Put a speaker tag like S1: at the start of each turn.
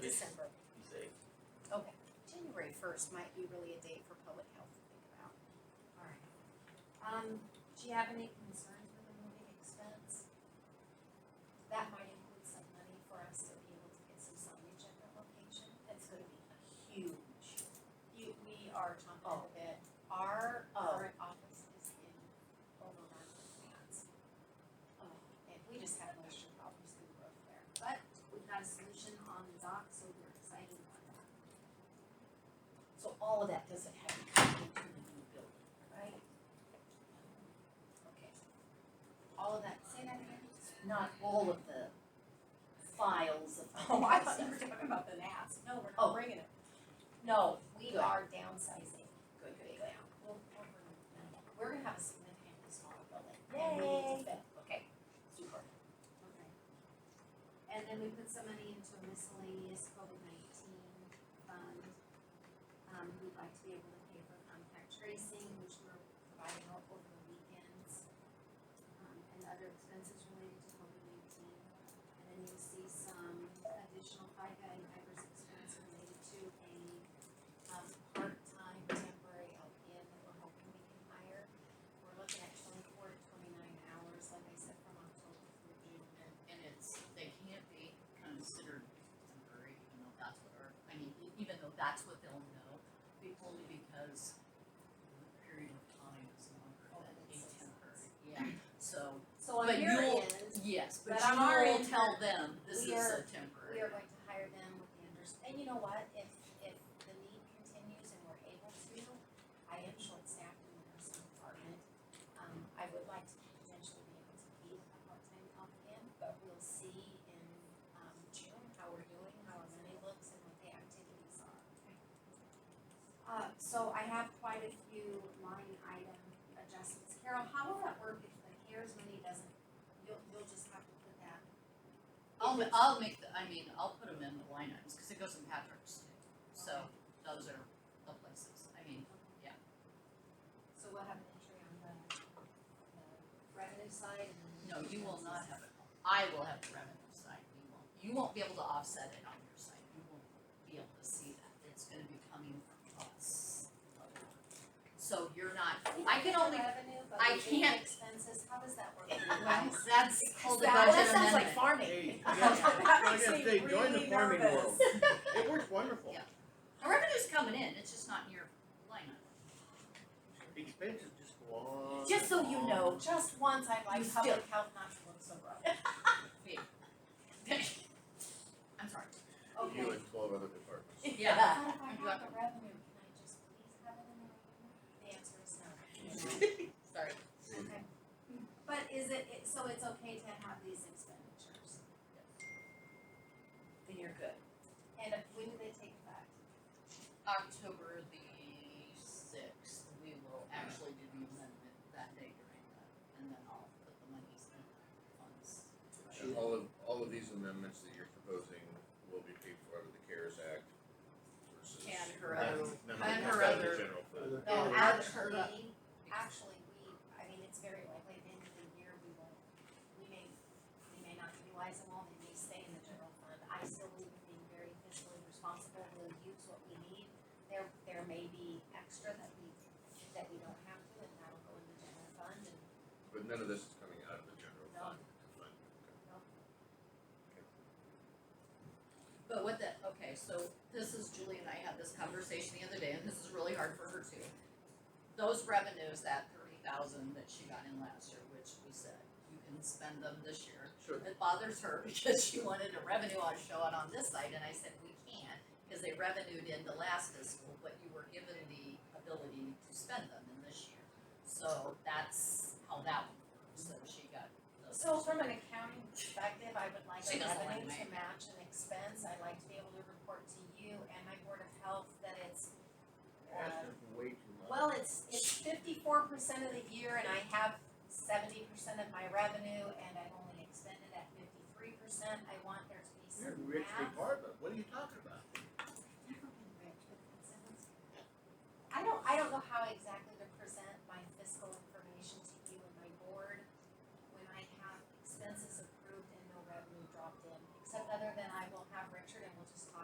S1: first might be really a day for public health to think about.
S2: Alright. Um, do you have any concerns with the moving expense? That might include some money for us to be able to get some signage at that location. That's gonna be huge.
S1: You, we are chomping at
S2: Oh.
S1: the bit. Our
S2: Oh.
S1: current office is in overrun with plants.
S2: Um,
S1: Oh, And we just have moisture problems through the roof there.
S2: But we've got a solution on the dock, so we're excited about that,
S3: So all of that doesn't have to come into the new building.
S2: right?
S3: Okay.
S2: All of that, say that again?
S3: Not all of the files of.
S2: Oh,
S1: talking about the NAS.
S2: No, we're
S3: Oh.
S2: not bringing it.
S3: No,
S2: We
S3: Good.
S2: are downsizing
S3: good, good, good.
S2: big now. We'll, we'll bring it down. We're gonna have a significantly smaller building.
S3: And we need to
S2: Yay.
S3: fit.
S2: Okay.
S3: Super.
S2: Okay. And then we put some money into a miscellaneous COVID nineteen fund. Um, we'd like to be able to pay for contact tracing, which we're providing out over the weekends. Um, and other expenses related to COVID nineteen. And then you'll see some additional FICA and IRS expense related to a, um, part-time temporary LPN that we're hoping we can hire. We're looking at twenty-four to twenty-nine hours, like I said, from October through June.
S4: And, and it's, they can't be considered temporary, even though that's what our, I mean, e- even though that's what they'll know, be- only because the period of time is longer
S2: Oh,
S4: than a
S2: that's six
S4: temporary, yeah, so,
S2: So on
S4: But
S2: your
S4: you'll-
S2: end,
S4: yes, but
S2: But on our
S4: you will
S2: end,
S4: tell them, this
S2: we
S4: is a
S2: are- we
S4: temporary.
S2: are going to hire them with the under, and you know what, if, if the need continues and we're able to, I am short-staffed in the nursing department. Um, I would like to potentially be able to keep a part-time LPN, but we'll see in, um, June how we're doing, how our money looks and what the activities are. Uh, so I have quite a few line item adjustments. Carol, how will that work if the CARES money doesn't, you'll, you'll just have to put that
S4: I'll, ma- I'll make the, I mean, I'll put them in the line items, cause it goes in Patrick's too, so those are the places, I mean,
S2: So we'll have an entry on the, the revenue side and then.
S4: no, you will not have it, I will have the revenue side, you won't, you won't be able to offset it on your side, you won't be able to see that, it's gonna be coming from us. So you're not, I can only,
S2: Revenue, but
S4: I
S2: the big
S4: can't-
S2: expenses, how does that work? for you
S4: well,
S2: guys?
S4: that's called a budget
S3: That,
S4: amendment.
S3: that sounds like farming.
S5: Hey, I gotta,
S1: That
S5: I
S1: makes
S5: gotta
S1: me
S5: say, join the
S1: really
S5: farming world.
S1: nervous.
S5: It works wonderful.
S4: Yeah. The revenue's coming in, it's just not in your line item.
S5: Expenses just go on.
S3: Just so you
S5: and
S3: know,
S5: on.
S2: Just once, I'd like
S3: You
S2: public health not to look so rough.
S4: I'm sorry.
S2: Okay,
S5: You and twelve other departments.
S4: Yeah.
S2: But if I
S4: You
S2: have
S4: got
S2: the revenue, can I just please have it in the revenue? The answer is no.
S4: Sorry.
S2: Okay. But is it, it, so it's okay to have these expenditures?
S3: Then you're good.
S2: And if- when do they take effect?
S4: October the sixth, we will actually do the amendment that day during that, and then I'll put the monies in the funds.
S5: And all of, all of these amendments that you're proposing will be paid for out of the CARES Act versus.
S4: And her other-
S5: None
S4: and
S5: of it comes
S4: her
S5: out of the
S4: other-
S5: general fund.
S2: No,
S4: Yeah, that's her up.
S2: actually, actually, we, I mean, it's very likely at the end of the year, we won't, we may, we may not utilize them all, they may stay in the general fund. I still believe in being very fiscally responsible, we'll use what we need. There, there may be extra that we, that we don't have to, and that'll go in the general fund, and
S5: But none of this is coming out of the general
S2: No.
S5: fund.
S4: But what the, okay, so this is Julie and I had this conversation the other day, and this is really hard for her too. Those revenues, that thirty thousand that she got in last year, which we said, you can spend them this year.
S5: Sure.
S4: It bothers her because she wanted a revenue on show it on this side, and I said, we can't, because they revenued in the last fiscal, but you were given the ability to spend them in this year. So that's how that one works, so she got those.
S2: So from an accounting perspective, I would like
S4: She
S2: a
S4: doesn't like
S2: revenue to
S4: me.
S2: match an expense, I'd like to be able to report to you and my board of health that it's uh,
S5: Asking for way too much.
S2: Well, it's, it's fifty-four percent of the year and I have seventy percent of my revenue and I've only expended at fifty-three percent, I want there to be
S5: You're
S2: some
S5: rich
S2: math.